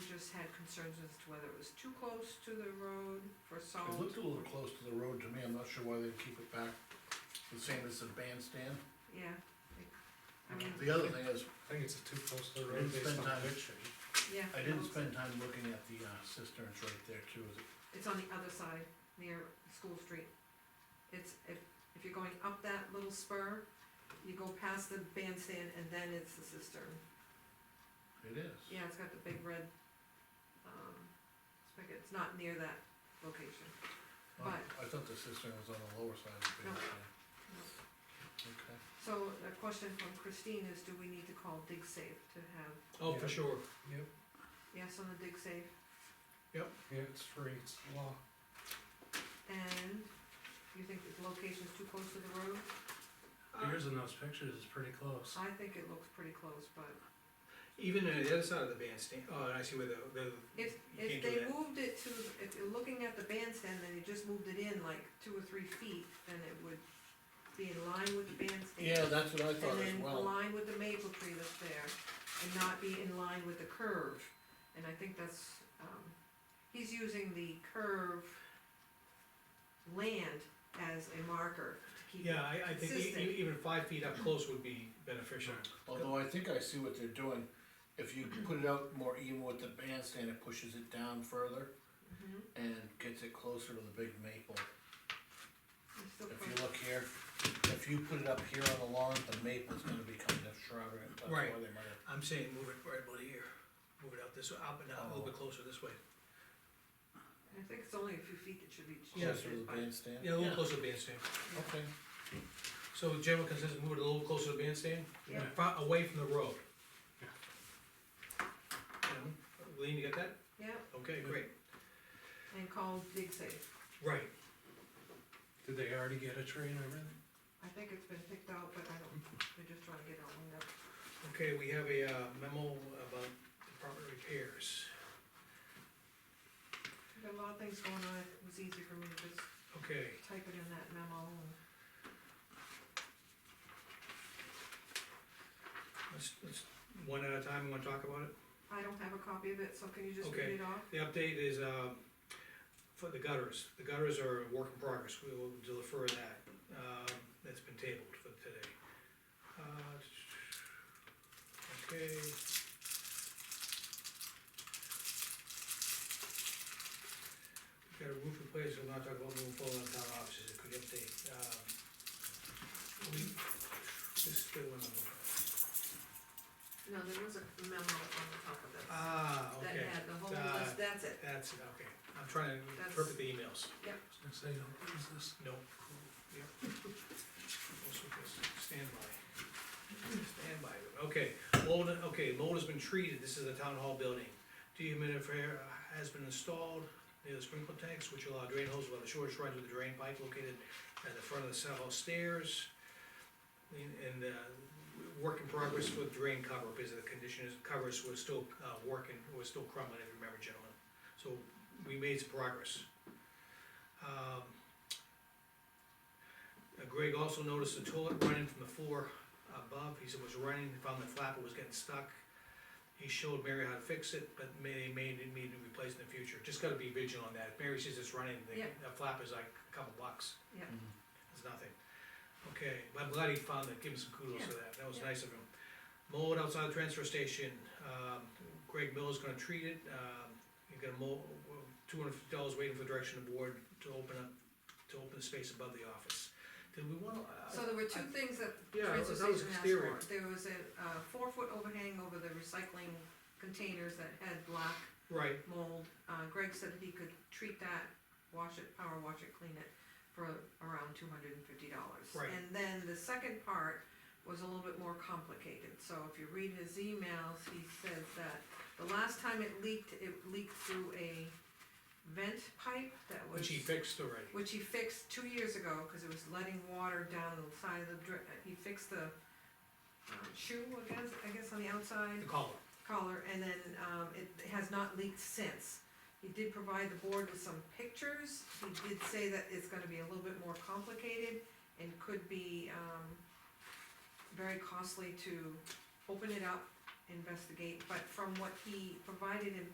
concerns as to whether it was too close to the road for It salt. looked a little close to the road to me, I'm not sure why they keep it back the same as the bandstand. Yeah. I mean, The other thing is, I think it's too close to the I didn't road based spend on time- the picture. yeah. I didn't spend time looking at the uh, cisterns right there too, is it- It's on the other side, near School Street. It's, if, if you're going up that little spur, you go past the bandstand and then it's the cistern. it is. Yeah, it's got the big red, um, spigot, it's not near that location. Oh, I thought the cistern was on the lower side of the No. bandstand. No. Okay. So a question from Christine is, do we need to call Dig Safe to have, Oh, for Yeah. sure. Yep, yes on the Dig Safe? yeah, it's free, it's law. And you think the location's too close to the road? Yours in those pictures is pretty close. I think it looks pretty close, but Even on the other side of the bandstand, oh, I see where the, the, you if, if can't do they that. moved it to, if you're looking at the bandstand, then you just moved it in like two or three feet, then it would be in line with the bandstand. Yeah, that's what I And thought as then well. align with the maple tree that's there, and not be in line with the curve. And I think that's, um, he's using the curve land as a marker to keep. it- Yeah, I, I think e- Consistent. e- even five feet up close would be beneficial. Although I think I see what they're doing, if you put it out more even with the bandstand, it pushes it down further Mhm, and gets it closer to the big maple. it's still If close. you look here, if you put it up here on the lawn, the maple's gonna be kind of shrouded, that's why Right. they might have. I'm saying move it right about here, move it out this, way, up and down, a little bit closer this way. I think it's only a few feet that should be Yeah. Closer to shifted, the but, bandstand? Yeah, a little closer to the bandstand. Okay, So general consensus, move it a little closer to the bandstand, yeah, far away from the road. Yeah. You know, Lean, you got that? yeah, Okay, great. and call dig safe. Right, Did they already get a tree and everything? I think it's been picked out, but I don't, they're just trying to get it all lined up. okay, we have a uh, memo about department repairs. Got a lot of things going on, it was easy for me to just Okay, type it in that memo and. let's, let's, one at a time, wanna talk about it? I don't have a copy of it, so can you just Okay. read it off? The update is, uh, for the gutters, the gutters are a work in progress, we will defer that, Um that's been tabled for today. Uh, Okay. We've got a roof replaced, we'll not talk about moving forward on town offices, it could update, um, we, this is the one I'm looking at. No, there was a memo on the top of this, Ah, okay. that had the whole Uh, list, that's it, That's, it, okay, I'm trying to That's- interpret the emails, I was gonna say, don't lose this. no, yep. Also, just stand by, stand by, okay, mold, okay, mold has been treated, this is the town hall building. Dehumidifier has been installed, near the sprinkler tanks, which allow drain hose by the shortest run to the drain pipe located at the front of the south stairs. And, and, uh, work in progress for drain cover, because the condition is, covers was still, uh, working, was still crumbling, if you remember, gentlemen. So, we made some progress. Um, uh, Greg also noticed the toilet running from the floor above, he said it was running, He found the flapper was getting stuck. He showed Mary how to fix it, but may, may need to replace in the future, just gotta be vigilant on that, if Mary says it's running, the, Yeah. the flapper's like a couple bucks. Yeah. Mhm. It's nothing. Okay, but I'm glad he found that, give him some kudos for that, that was Yeah. nice of him. Mold outside the transfer station, um, Greg Miller's gonna treat it, um, you got a mold, two hundred fifty dollars waiting for direction of board to open up, to open the space above the office. Did we wanna? uh, so there were two things that Yeah, that transfer was- that was station asked exterior. for, there was a, uh, four foot overhang over the recycling containers that had black Right, mold, uh, Greg said that he could treat that, wash it, power wash it, clean it for around two hundred and fifty dollars. Right. And then the second part was a little bit more complicated, so if you read his emails, he says that the last time it leaked, it leaked through a vent pipe that was. which he fixed already, which he fixed two years ago, cause it was letting water down the side of the dri- he fixed the um, shoe, I guess, I guess on the outside the collar. collar, and then, um, it has not leaked since. He did provide the board with some pictures, he did say that it's gonna be a little bit more complicated and could be, um, very costly to open it up, investigate, but from what he provided in